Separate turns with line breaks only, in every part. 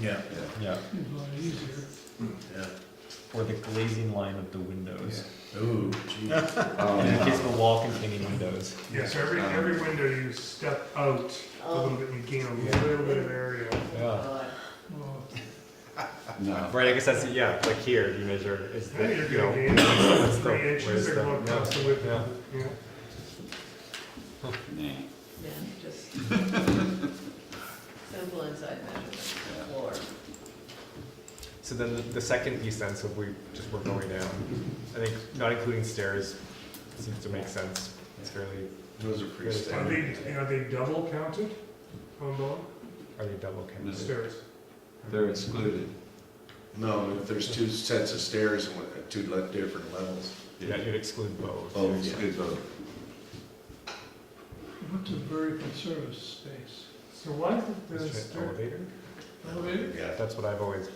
Yeah,
yeah,
It's a lot easier.
yeah.
or the glazing line of the windows.
Ooh, geez.
In the case
Um,
of the wall containing windows.
Yeah, so every,
Um,
every window you step out a little bit, you gain a little bit of area.
Yeah.
God.
Well,
No,
Right, I guess that's, yeah, like here, you measure, is
I
that,
think
you
you're gonna
know,
gain
what's the,
three
where's
inches
the,
or what
yeah,
across the width.
yeah.
Yeah.
nah.
Yeah, just simple inside measurement, floor.
So then the- the second piece then, so if we just were going down, I think not including stairs seems to make sense. It's fairly,
Those are pretty
Good.
Are
standard.
they, are they double counted on the
are they double counted?
stairs?
They're excluded.
No, if there's two sets of stairs and what- two le- different levels.
Yeah, you'd exclude both.
Oh,
yeah.
exclude both.
what's a vertical service space?
So why is it the
Is it an
stair?
elevator?
Elevator?
Yeah,
That's what I've always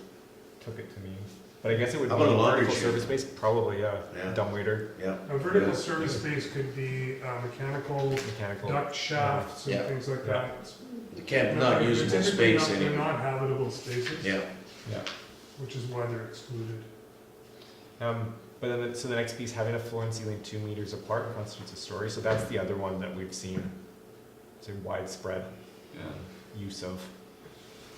took it to mean. But I guess it would be
How about a laundry
vertical
chute?
service space, probably, yeah.
Yeah.
Dumbwaiter,
yeah.
A vertical
Yeah. Oh.
service space could be uh, mechanical
mechanical.
duct shafts
Yeah.
and things like that.
You can't, not
They're
usable
typically not-
space
They're
anymore.
not habitable spaces,
Yeah,
which is why they're excluded.
Um, but then, the- so the next piece, having a floor and ceiling two meters apart constitutes a story. So that's the other one that we've seen, it's a widespread
Yeah.
use of.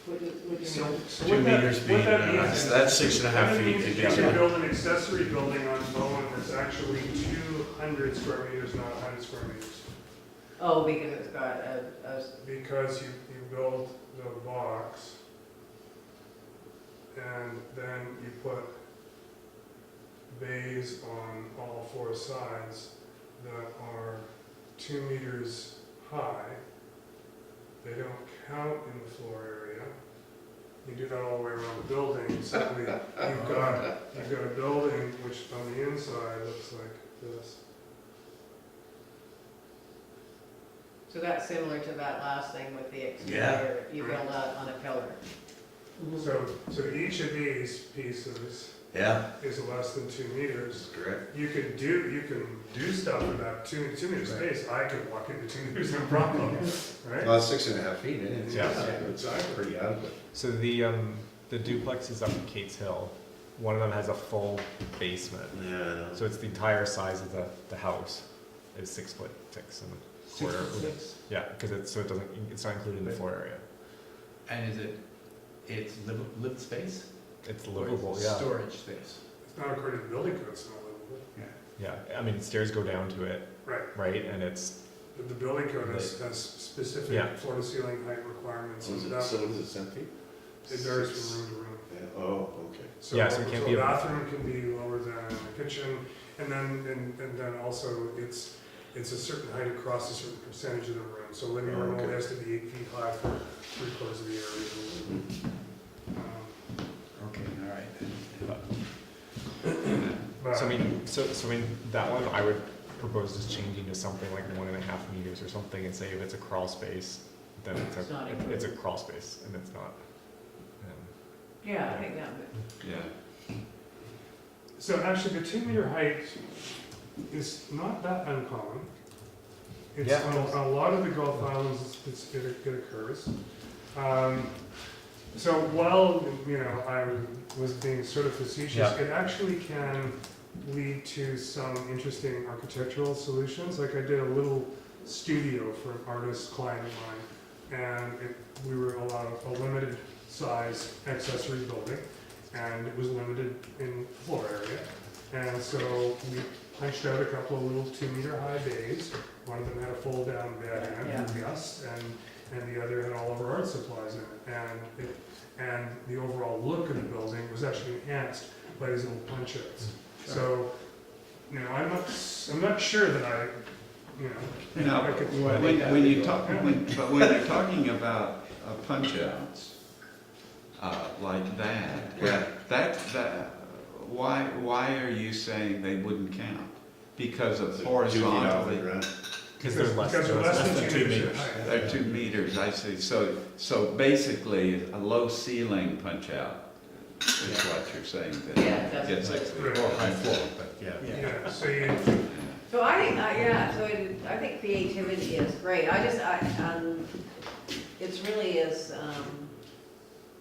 Would you, would
So,
you?
so
two
what that,
meters
what
being,
that
uh,
means is-
that's six and a half
that
feet.
means
to
You
get
can
to-
build an accessory building on Bowen that's actually two hundred square meters, not hundred square meters.
Oh, because it's got a, a,
Because you, you build the box and then you put bays on all four sides that are two meters high. They don't count in the floor area. You do that all the way around the building, so we- you've got, you've got a building which on the inside looks like this.
so that's similar to that last thing with the
Yeah.
exterior, you build out on a pillar.
So, so each of these pieces
Yeah,
is less than two meters.
that's correct.
You can do, you can do stuff with that two, two meter
Right.
space, I could walk into two meters, no problem, right?
Well, six and a half feet, isn't it?
Yeah.
It's pretty adequate.
So the um, the duplexes up in Kate's Hill, one of them has a full basement.
Yeah, I know.
So it's the entire size of the, the house is six foot six and a quarter. Yeah, because it's so it doesn't it's not included in the floor area.
And is it, it's lived, lived space?
It's
Or is it
livable. Yeah,
Storage space.
It's not according to the building code, it's not livable.
yeah. I mean stairs go down to it,
Right,
right? And it's
but the building code has, has specific
Yeah. Mm-hmm.
floor to ceiling height requirements,
So
and
is it,
that,
so is it seven feet?
it varies from room to room.
Yeah, oh, okay.
So,
Yeah, so it can't
so
be a-
bathroom can be lower than a kitchen, and then, and, and then also it's, it's a certain height across a certain percentage of the room. So living
Oh,
room only
okay.
has to be eight feet high for three quarters of the area.
Mm-hmm.
Um,
Okay, all right.
But,
so I mean so so I mean that one I would propose just changing to something like one and a half meters or something and say if it's a crawl space, then it's
It's not
a it- it's a
included.
crawl space and it's not. Um,
Yeah, I think that would.
Yeah.
so actually, the two meter height is not that uncommon. It's
Yeah.
on a- a lot of the Gulf Islands, it's, it it occurs. Um, So while, you know, I was being sort of facetious,
Yeah.
it actually can lead to some interesting architectural solutions. Like I did a little studio for an artist client of mine, and it, we were allowed a limited size accessory building, and it was limited in floor area. And so we punched out a couple of little two meter high bays. One of them had a fold down bed in it for guests, and, and the other had all of our art supplies in it. And it and the overall look of the building was actually enhanced by these little punch outs. So, you know, I'm not, s- I'm not sure that I, you know.
Now,
I could-
when, when you talk, when, but when you're talking about uh, punch-outs, uh, like that,
Yeah.
that, that, why, why are you saying they wouldn't count? Because of horizontally,
Because there's less,
Because
so
they're
it's less than two meters.
in height.
they're two meters, I see, so, so basically, a low ceiling punch-out is what you're saying then.
Yeah, that's-
Gets
Right.
excluded.
Yeah.
Yeah, so you,
So I think, I- yeah, so it- I think creativity is great, I just, I, um, it's really is, um,